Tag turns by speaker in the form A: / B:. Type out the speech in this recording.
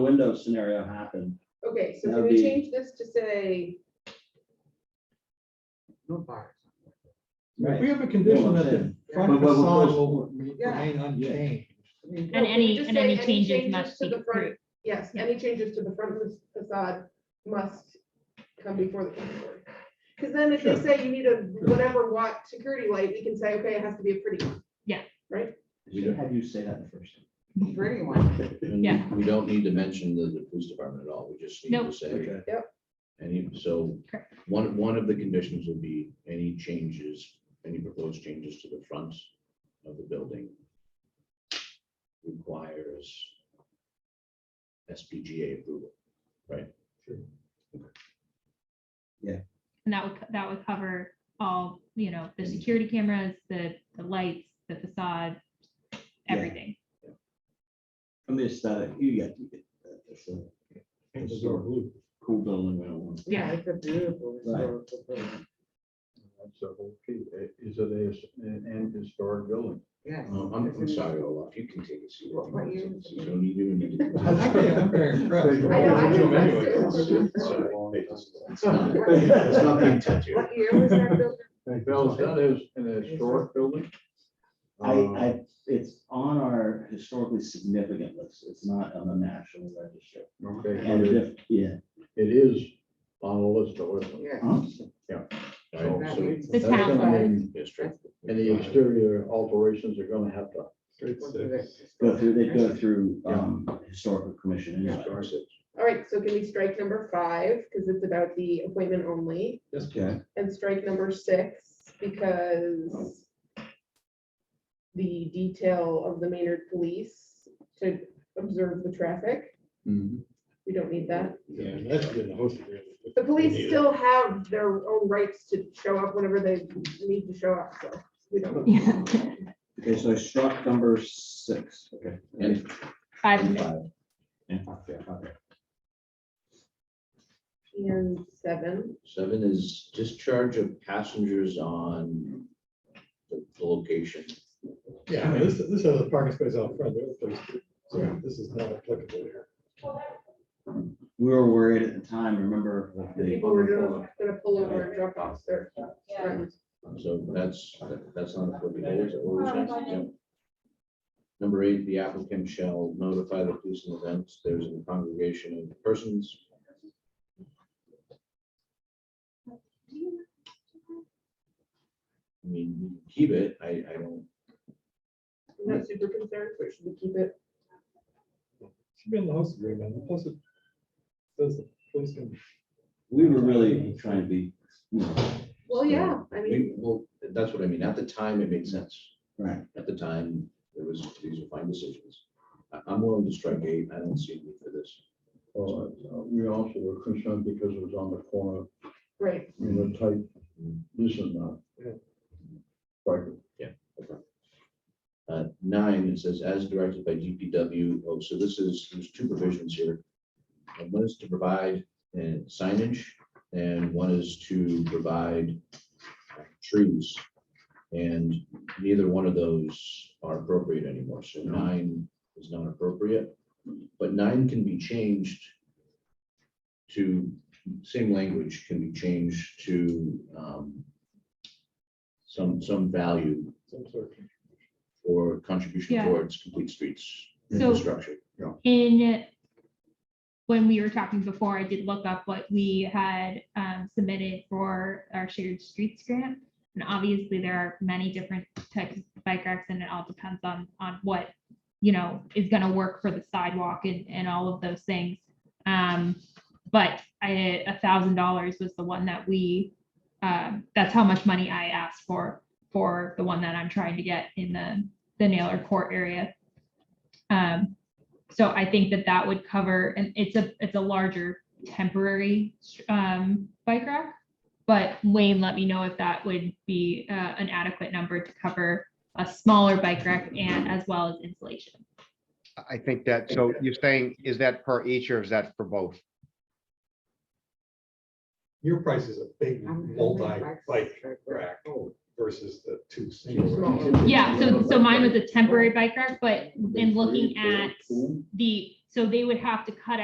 A: window scenario happened.
B: Okay, so
A: That'd
B: can
A: be-
B: we change this to say,
C: No bars.
D: If we
A: Right.
D: have a condition that the
A: saying.
D: front
A: But- but- but-
D: facade will remain
B: Yeah.
D: unchanged.
B: I mean.
E: And any-
B: just
E: and
B: say
E: any changes must
B: to
E: be
B: the front.
E: approved.
B: Yes,
E: Yeah.
B: any changes to the front fa- facade must come before the planning board. Because then if they
A: Sure.
B: say you need a whatever watt security light, we can say, okay, it has to be a pretty one.
F: We don't,
A: Have you say that the first.
B: Pretty one.
F: and
E: Yeah.
F: we- we don't need to mention the, the police department at all, we just need to
E: Nope.
F: say.
A: Okay.
F: Any, so,
E: Correct.
F: one, one of the conditions would be any changes, any proposed changes to the front of the building requires SPGA approval, right?
E: And that would, co- that would cover all, you know, the security cameras, the, the lights, the facade,
A: Yeah.
E: everything.
A: From the aesthetic, you get, you get that. It's a
D: Changes are blue.
A: cool building right on.
E: Yeah.
C: It's a beautiful
A: Right.
C: historical building.
G: So, okay, is it a, s- an an historic building?
C: Yes.
F: Um, I'm, I'm
C: It's a-
F: sorry, Olaf, you can take a seat.
C: What- what year is it?
F: You don't need to need to-
D: I like it, I'm very impressed.
B: I know, I know.
F: Sorry, It's it's not, it's not the
B: What
F: intent here.
B: year was that built?
G: Bill, is that is an historic building?
A: I,
G: Um,
A: I, it's on our historically significant list. It's not on the national register.
G: Uh, Okay,
A: And
G: but it-
A: if, yeah, Um,
G: it is on the list, though, isn't it?
C: Yeah.
A: huh? Oh,
F: Right,
C: That
F: so
C: means-
E: The
G: That's
E: town
G: gonna
C: side.
G: mean-
F: district.
G: And the exterior alterations are gonna have to.
C: What's the-
A: go through, they go through, um, historical commission. anyway.
B: All right, so can we strike number five, because it's about the appointment only,
A: Okay.
B: and strike number six, because the detail of the Maynard police to observe the traffic, we don't need that.
D: Yeah, that's good, the host agreement.
B: The police still have their own rights to show up whenever they need to show up, so we don't.
E: Yeah.
A: Okay, so I struck number six. Okay.
F: And-
E: Five,
F: and
E: minutes.
F: five.
B: And seven,
F: Seven is discharge of passengers on the the location.
D: Yeah, I mean, this, this has a parking space out front, the other place, so this is not applicable here.
A: We were worried at the time, remember? like,
B: the
A: the-
B: people were gonna, gonna pull over and drop off their friends.
F: So that's, that's not applicable. is that what we're saying? Yeah. Number eight, the applicant shall notify the police in events there's a congregation of persons. I mean, we can keep it. I, I don't,
B: I'm not super concerned, but should we keep it?
D: Should be in the host agreement, plus it says the police can.
A: We were really trying to be, you know,
B: Well, yeah, I mean,
F: we, well, that's what I mean. At the time, it made sense.
A: right.
F: At the time, there was, these were fine decisions. I, I'm willing to strike eight. I don't see a need for this.
G: Uh, We also were concerned because it was on the corner,
B: right,
G: you know, type, this is not.
D: Yeah.
G: Right.
F: Uh, nine, it says as directed by DPW. Oh, so this is, there's two provisions here. And one is to provide uh, signage and one is to provide uh, trees. And neither one of those are appropriate anymore. So nine is not appropriate. But nine can be changed to, same language can be changed to um, some, some value
D: Some sort of.
F: or contribution
E: Yeah.
F: towards complete streets
E: So-
F: infrastructure.
E: in, when we were talking before, I did look up what we had um, submitted for our shared streets grant. And obviously, there are many different types of bike racks, and it all depends on, on what, you know, is gonna work for the sidewalk and, and all of those things. Um, but I, a thousand dollars was the one that we, um, that's how much money I asked for, for the one that I'm trying to get in the, the Naylor Court area. Um, so I think that that would cover, and it's a, it's a larger temporary um, bike rack. But Wayne, let me know if that would be uh, an adequate number to cover a smaller bike rack and as well as insulation.
H: I think that, so you're saying, is that per each or is that for both?
D: Your price is a big
C: I'm-
D: multi bike
C: Right.
D: rack versus the two
B: Too
D: single.
B: small.
D: racks.
E: Yeah, so, so mine was a temporary bike rack, but in looking at the So they would have to cut